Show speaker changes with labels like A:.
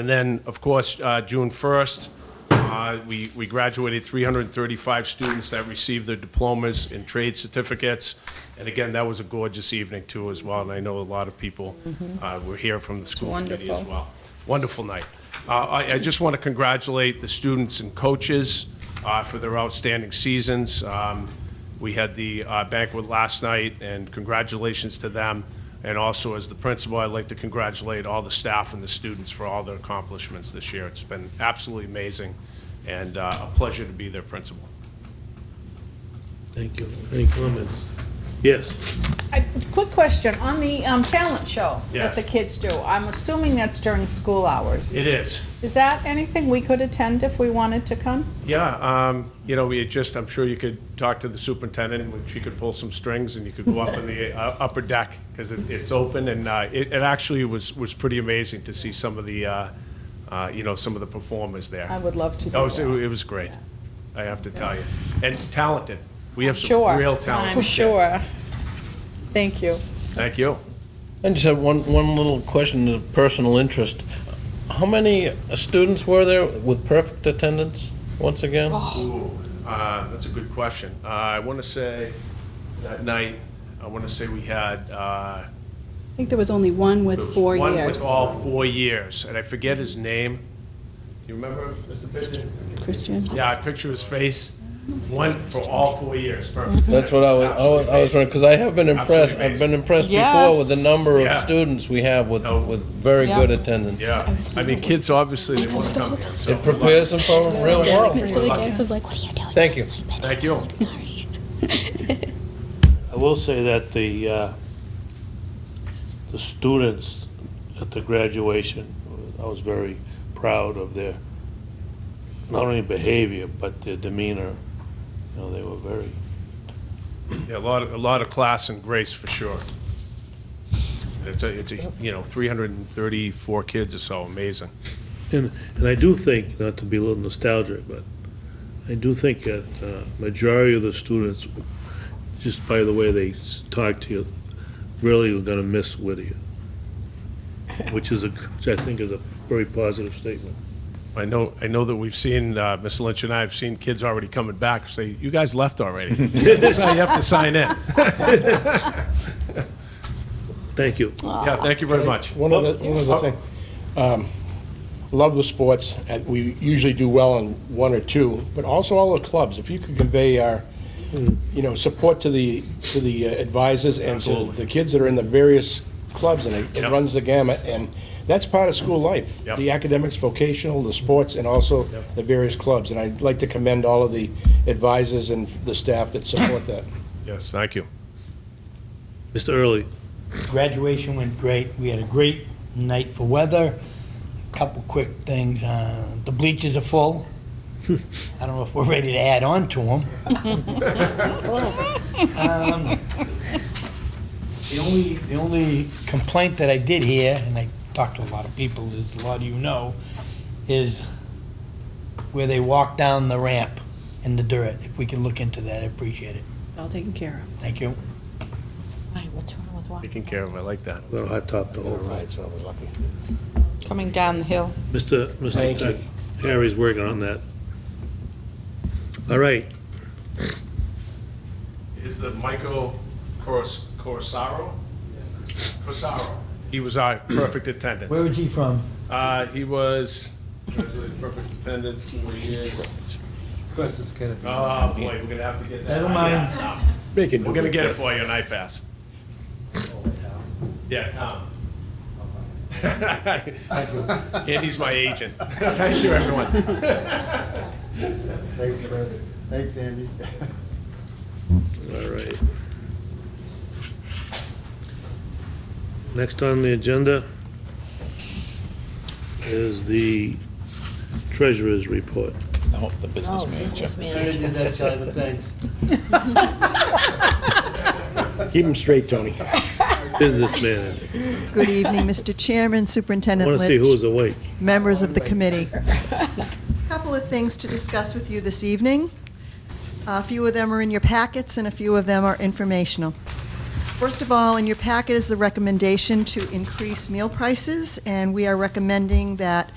A: And then, of course, uh, June 1st, uh, we we graduated 335 students that received their diplomas and trade certificates. And again, that was a gorgeous evening too as well, and I know a lot of people uh, were here from the school committee as
B: Wonderful.
A: well. Wonderful night. Uh, I I just want to congratulate the students and coaches uh, for their outstanding seasons. Um, We had the uh, banquet last night, and congratulations to them. And also, as the principal, I'd like to congratulate all the staff and the students for all their accomplishments this year. It's been absolutely amazing, and uh, a pleasure to be their principal.
C: Thank you. Any comments? Yes.
B: I- Quick question, on the um, talent show
A: Yes.
B: that the kids do, I'm assuming that's during school hours.
A: It is.
B: Is that anything we could attend if we wanted to come?
A: Yeah, um, you know, we had just, I'm sure you could talk to the superintendent, and she could pull some strings, and you could go up in the uh, upper deck, because it, it's open, and, uh, it, it actually was, was pretty amazing to see some of the, uh, uh, you know, some of the performers there.
B: I would love to do
A: That was, it
B: that.
A: was great, I have to tell you, and talented, we have some
B: Sure.
A: real talented
B: I'm
A: kids.
B: sure. Thank you.
A: Thank you.
C: I just have one, one little question of personal interest. How many students were there with perfect attendance, once again?
A: Ooh, uh, that's a good question. Uh, I want to say, that night, I want to say we had, uh,
D: I think there was only one
A: There
D: with
A: was
D: four
A: One with
D: years.
A: all four years, and I forget his name. Do you remember, Mr. Pigeon?
D: Christian?
A: Yeah, I picture his face, one for all four years, perfect.
C: That's what I was, I was- I was wondering, because I have been impressed,
A: Absolutely
C: I've been impressed before with the
B: Yes.
C: number
A: Yeah.
C: of students we have with,
A: No.
C: with very
B: Yeah.
C: good attendance.
A: Yeah, I mean, kids, obviously, they want to come here, so.
C: It prepares them for the real
D: So the
C: world.
D: guy was like, what are you doing?
C: Thank you.
A: Thank you.
D: Sorry.
E: I will say that the, uh, the students at the graduation, I was very proud of their, not only behavior, but their demeanor. You know, they were very,
A: Yeah, a lot, of- a lot of class and grace for sure. It's a, it's a, you know, 334 kids or so, amazing.
F: And, and I do think, not to be a little nostalgic, but I do think that uh, majority of the students, just by the way they s- talk to you, really are gonna miss Whittier, which is a, which I think is a very positive statement.
A: I know, I know that we've seen, uh, Ms. Lynch and I have seen kids already coming back, say, you guys left already. So you have to sign in.
F: Thank you.
A: Yeah, thank you very much.
G: One other, one other thing. Um, Love the sports, and we usually do well in one or two, but also all the clubs. If you could convey our, you know, support to the, to the uh, advisors and to
A: Absolutely.
G: the kids that are in the various clubs, and it- it
A: Yep.
G: runs the gamut, and that's part of school life.
A: Yep.
G: The academics, vocational, the sports, and also
A: Yep.
G: the various clubs. And I'd like to commend all of the advisors and the staff that support that.
A: Yes, thank you.
F: Mr. Early,
H: Graduation went great. We had a great night for weather. Couple quick things. Uh, the bleachers are full. I don't know if we're ready to add on to them. um, the only the only complaint that I did hear, and I talked to a lot of people, as a lot of you know, is where they walk down the ramp in the dirt. If we can look into that, I appreciate it.
D: All taken care of.
H: Thank you.
A: Taken care of, I like that.
F: a little hot top to hold.
G: Right, so I was lucky.
B: Coming down the hill.
F: Mr.
G: Thank
F: Mr.
G: you.
F: Tuck- Harry's working on that. All right,
A: Is the Michael Coros- Corosaro? Corosaro. He was our perfect
H: Where
A: attendance.
H: was he from?
A: Uh, he was, perfect attendance, four years. Oh, boy, we're gonna have to get that.
H: Never mind.
G: Make it
A: We're gonna get it for you, an iPass. Yeah, Oh, Tom. Andy's my agent. Thank you, everyone.
I: Thanks, Chris. Thanks, Andy.
F: all right. Next on the agenda is the treasurer's report.
C: The business manager.
I: I already did that, Charlie, but thanks.
G: Keep them straight, Tony.
F: Business manager.
J: Good evening, Mr. Chairman,
F: I
J: Superintendent
F: want to see
J: Lynch,
F: who's awake.
J: members of the committee. Couple of things to discuss with you this evening. A few of them are in your packets, and a few of them are informational. First of all, in your packet is the recommendation to increase meal prices, and we are recommending that